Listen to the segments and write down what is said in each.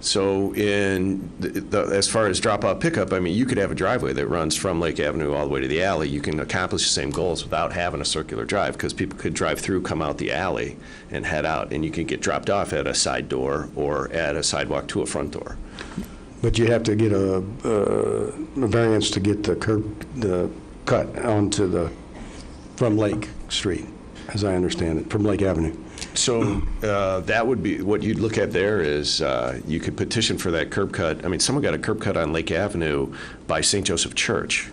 So in, the- the- as far as drop-off pickup, I mean, you could have a driveway that runs from Lake Avenue all the way to the alley. You can accomplish the same goals without having a circular drive, because people could drive through, come out the alley, and head out, and you can get dropped off at a side door or at a sidewalk to a front door. But you have to get a, uh, a variance to get the curb, the cut onto the, from Lake Street, as I understand it, from Lake Avenue. So uh, that would be, what you'd look at there is, uh, you could petition for that curb cut. I mean, someone got a curb cut on Lake Avenue by St. Joseph Church,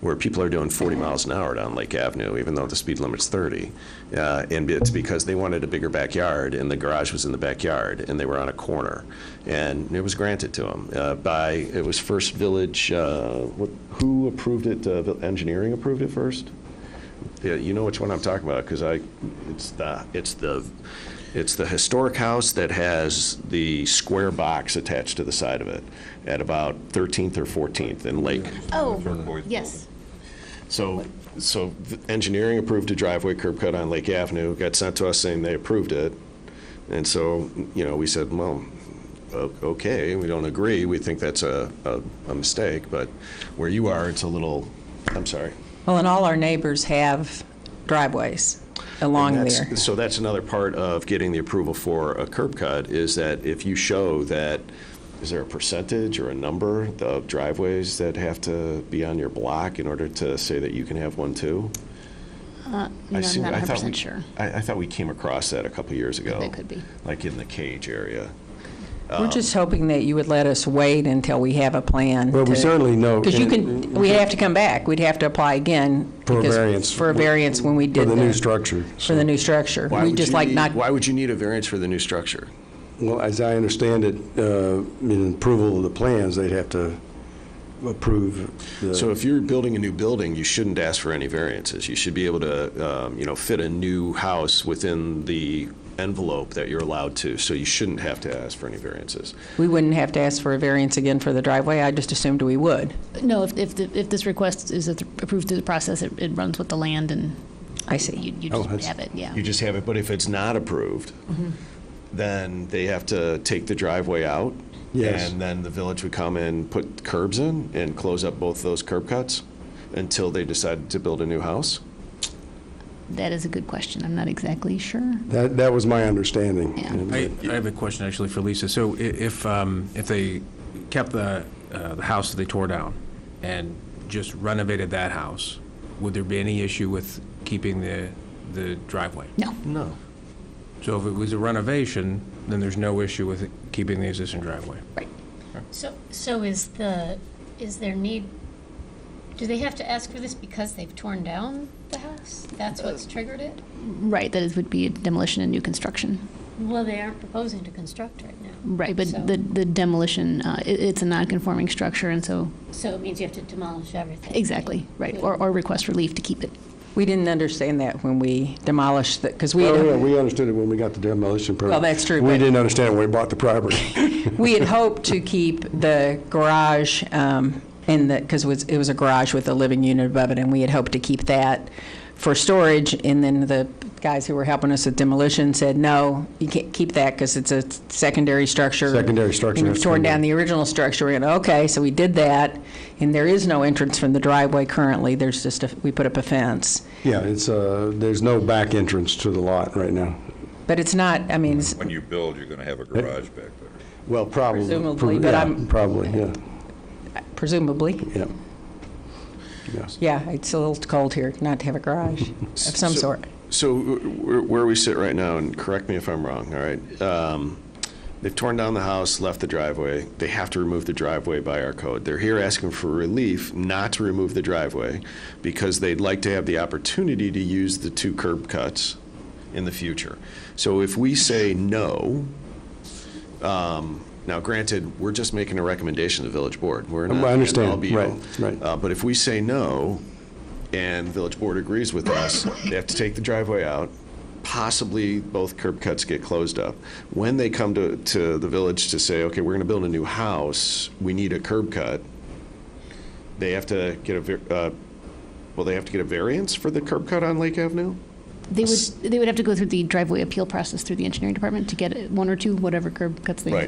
where people are doing 40 miles an hour down Lake Avenue, even though the speed limit's 30. Uh, And it's because they wanted a bigger backyard, and the garage was in the backyard, and they were on a corner. And it was granted to them by, it was First Village, uh, what- who approved it? Uh, Vil- Engineering approved it first? Yeah, you know which one I'm talking about, because I, it's the, it's the, it's the historic house that has the square box attached to the side of it at about 13th or 14th in Lake. Oh, yes. So, so the engineering approved a driveway curb cut on Lake Avenue, got sent to us saying they approved it. And so, you know, we said, well, o- okay, we don't agree, we think that's a, a, a mistake, but where you are, it's a little, I'm sorry. Well, and all our neighbors have driveways along And there. that's- So that's another part of getting the approval for a curb cut, is that if you show that, is there a percentage or a number of driveways that have to be on your block in order to say that you can have one too? No, I I'm seem- not I thought 100% we- sure. I, I thought we came across that a couple years ago. That could be. Like in the cage area. We're just hoping that you would let us wait until we have a plan. Well, we certainly know- Because you can, we'd have to come back. We'd have to apply again. For a because- variance. For a variance when we For did the new the- structure. For the new structure. Why We'd would just you like need- not, Why would you need a variance for the new structure? Well, as I understand it, uh, in approval of the plans, they'd have to approve the. So if you're building a new building, you shouldn't ask for any variances. You should be able to, um, you know, fit a new house within the envelope that you're allowed to, so you shouldn't have to ask for any variances. we wouldn't have to ask for a variance again for the driveway. I just assumed we would. No, if, if, the- if this request is approved through the process, it, it runs with the land and I see. you, you Oh, just that's- have it, yeah. You just have it, but if it's not approved, then they have to take the driveway out? Yes. And then the village would come and put curbs in and close up both those curb cuts until they decide to build a new house? That is a good question. I'm not exactly sure. That, that was my understanding. Yeah. And- I, I have a question actually for Lisa. So i- if, um, if they kept the, uh, the house that they tore down and just renovated that house, would there be any issue with keeping the, the driveway? No, No. So if it was a renovation, then there's no issue with keeping the existing driveway. right. So, so is the, is there need, do they have to ask for this because they've torn down the house? That's what's triggered it? Right, that is, would be demolition and new construction. Well, they aren't proposing to construct right now. Right, but So- the, the demolition, uh, it, it's a non-conforming structure and so, So it means you have to demolish everything? exactly, right, or, or request relief to keep it. We didn't understand that when we demolished the, because we had. Oh, yeah, we understood it when we got the demolition permit. Well, that's true, We but- didn't understand it when we bought the property. We had hoped to keep the garage um, in the, because it was, it was a garage with a living unit above it, and we had hoped to keep that for storage, and then the guys who were helping us with demolition said, no, you can't keep that because it's a secondary structure. Secondary structure, And you've that's torn down correct. the original structure, and, okay, so we did that, and there is no entrance from the driveway currently, there's just, a we put up a fence. Yeah, it's, uh, there's no back entrance to the lot right now. But it's not, I mean, it's- When you build, you're going to have a garage back there. Well, probably. Presumably, but Yeah, I'm- Probably, yeah, presumably, yeah. yeah, it's a little cold here not to have a garage of some So- sort. So uh, where where we sit right now, and correct me if I'm wrong, all right? um, They've torn down the house, left the driveway. They have to remove the driveway by our code. They're here asking for relief not to remove the driveway because they'd like to have the opportunity to use the two curb cuts in the future. So if we say no, um, now granted, we're just making a recommendation to the village board. We're not. I understand. an all be all. Right, right. Uh, But if we say no, and the village board agrees with us, they have to take the driveway out, possibly both curb cuts get closed up. When they come to, to the village to say, okay, we're going to build a new house, we need a curb cut, they have to get a, var- uh, well, they have to get a variance for the curb cut on Lake Avenue? They would, they would have to go through the driveway appeal process through the engineering department to get one or two, whatever curb cuts they Right.